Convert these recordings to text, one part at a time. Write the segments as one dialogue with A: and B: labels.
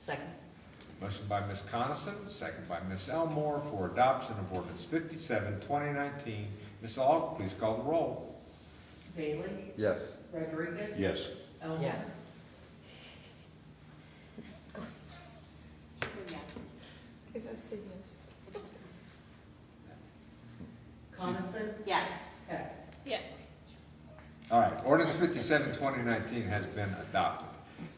A: Second.
B: Motion by Ms. Coniston, second by Ms. Elmore for adoption of ordinance 57-2019. Ms. Aug, please call the roll.
C: Bailey?
D: Yes.
C: Rodriguez?
E: Yes.
C: Elmore?
A: Yes.
F: She said yes.
G: Is that say yes?
C: Coniston?
F: Yes.
C: Heck.
G: Yes.
B: All right, ordinance 57-2019 has been adopted.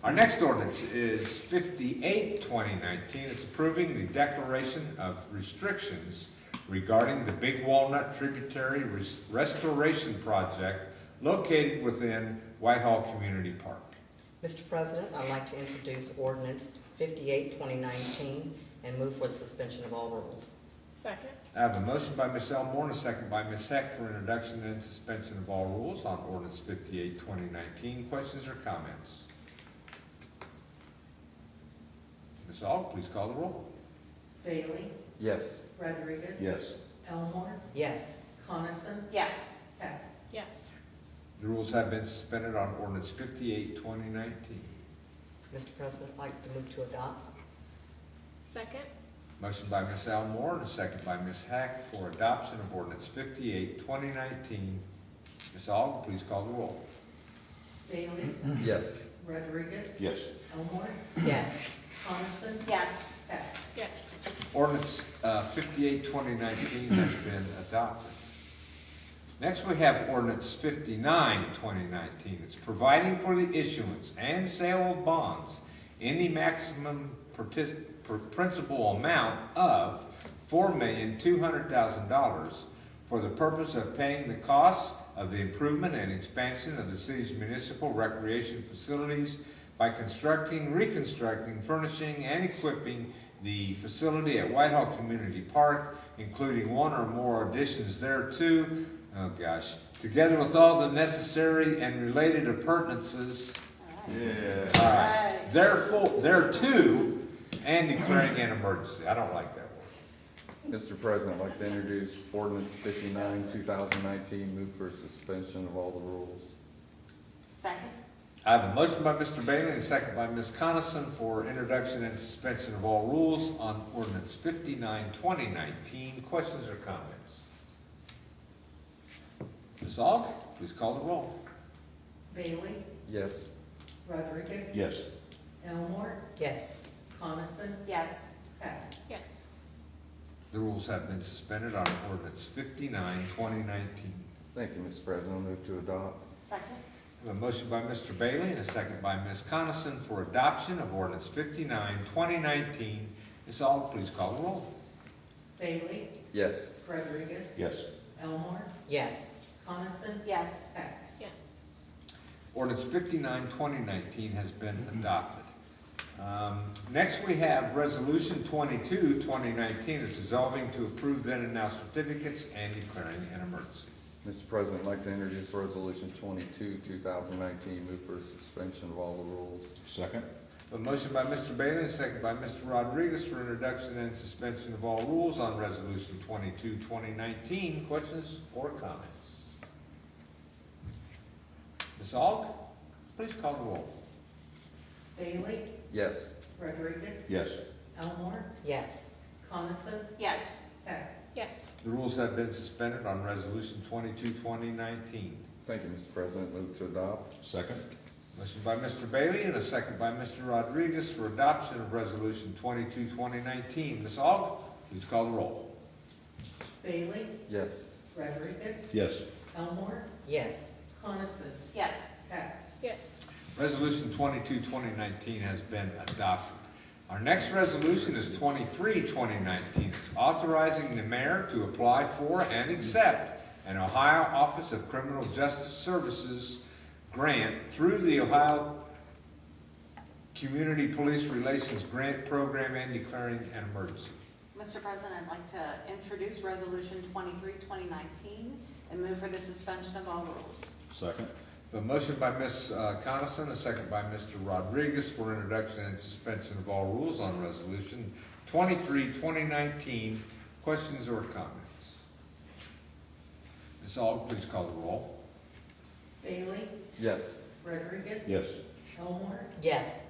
B: Our next ordinance is 58-2019. It's approving the declaration of restrictions regarding the Big Walnut Tributary Res- Restoration Project located within Whitehall Community Park.
A: Mr. President, I'd like to introduce ordinance 58, 2019, and move for the suspension of all rules.
G: Second?
B: I have a motion by Ms. Elmore and a second by Ms. Heck for introduction and suspension of all rules on ordinance 58-2019. Questions or comments? Ms. Aug, please call the roll.
C: Bailey?
D: Yes.
C: Rodriguez?
E: Yes.
C: Elmore?
A: Yes.
C: Coniston?
F: Yes.
C: Heck.
G: Yes.
B: The rules have been suspended on ordinance 58-2019.
A: Mr. President, I'd like to move to adopt.
G: Second?
B: Motion by Ms. Elmore and a second by Ms. Heck for adoption of ordinance 58-2019. Ms. Aug, please call the roll.
C: Bailey?
D: Yes.
C: Rodriguez?
E: Yes.
C: Elmore?
A: Yes.
C: Coniston?
F: Yes.
C: Heck.
G: Yes.
B: Ordinance uh, 58, 2019 has been adopted. Next, we have ordinance 59, 2019. It's providing for the issuance and sale of bonds in the maximum partic- pr- principal amount of $4,200,000 for the purpose of paying the costs of the improvement and expansion of the city's municipal recreation facilities by constructing, reconstructing, furnishing, and equipping the facility at Whitehall Community Park, including one or more additions thereto, oh gosh, together with all the necessary and related appurtenances,
E: Yeah.
B: all right,
F: Right.
B: therefore, thereto, and declaring an emergency. I don't like that word.
D: Mr. President, I'd like to introduce ordinance fifty-nine, two thousand nineteen, move for suspension of all the rules.
F: Second?
B: I have a motion by Mr. Bailey and a second by Ms. Coniston for introduction and suspension of all rules on ordinance 59, 2019. Questions or comments? Ms. Aug, please call the roll.
C: Bailey?
D: Yes.
C: Rodriguez?
E: Yes.
C: Elmore?
A: Yes.
C: Coniston?
F: Yes.
C: Heck.
G: Yes.
B: The rules have been suspended on ordinance 59, 2019.
D: Thank you, Mr. President. I'll move to adopt.
F: Second?
B: I have a motion by Mr. Bailey and a second by Ms. Coniston for adoption of ordinance 59, 2019. Ms. Aug, please call the roll.
C: Bailey?
D: Yes.
C: Rodriguez?
E: Yes.
C: Elmore?
A: Yes.
C: Coniston?
F: Yes.
C: Heck.
G: Yes.
B: Ordinance 59, 2019 has been adopted. Um, Next, we have Resolution 22, 2019, is dissolving to approve then and now certificates and declaring an emergency.
D: Mr. President, I'd like to introduce resolution twenty-two, two thousand nineteen, move for suspension of all the rules.
E: Second?
B: A motion by Mr. Bailey and a second by Mr. Rodriguez for introduction and suspension of all rules on Resolution 22, 2019. Questions or comments? Ms. Aug, please call the roll.
C: Bailey?
D: Yes.
C: Rodriguez?
E: Yes.
C: Elmore?
A: Yes.
C: Coniston?
F: Yes.
C: Heck.
G: Yes.
B: The rules have been suspended on Resolution 22, 2019.
D: Thank you, Mr. President. Move to adopt.
E: Second?
B: Motion by Mr. Bailey and a second by Mr. Rodriguez for adoption of Resolution 22, 2019. Ms. Aug, please call the roll.
C: Bailey?
D: Yes.
C: Rodriguez?
E: Yes.
C: Elmore?
A: Yes.
C: Coniston?
F: Yes.
C: Heck.
G: Yes.
B: Resolution 22, 2019 has been adopted. Our next resolution is 23, 2019. It's authorizing the mayor to apply for and accept an Ohio Office of Criminal Justice Services grant through the Ohio Community Police Relations Grant Program and declaring an emergency.
F: Mr. President, I'd like to introduce Resolution 23, 2019, and move for the suspension of all rules.
E: Second?
B: A motion by Ms. uh, Coniston, a second by Mr. Rodriguez for introduction and suspension of all rules on Resolution 23, 2019. Questions or comments? Ms. Aug, please call the roll.
C: Bailey?
D: Yes.
C: Rodriguez?
E: Yes.
C: Elmore?
A: Yes.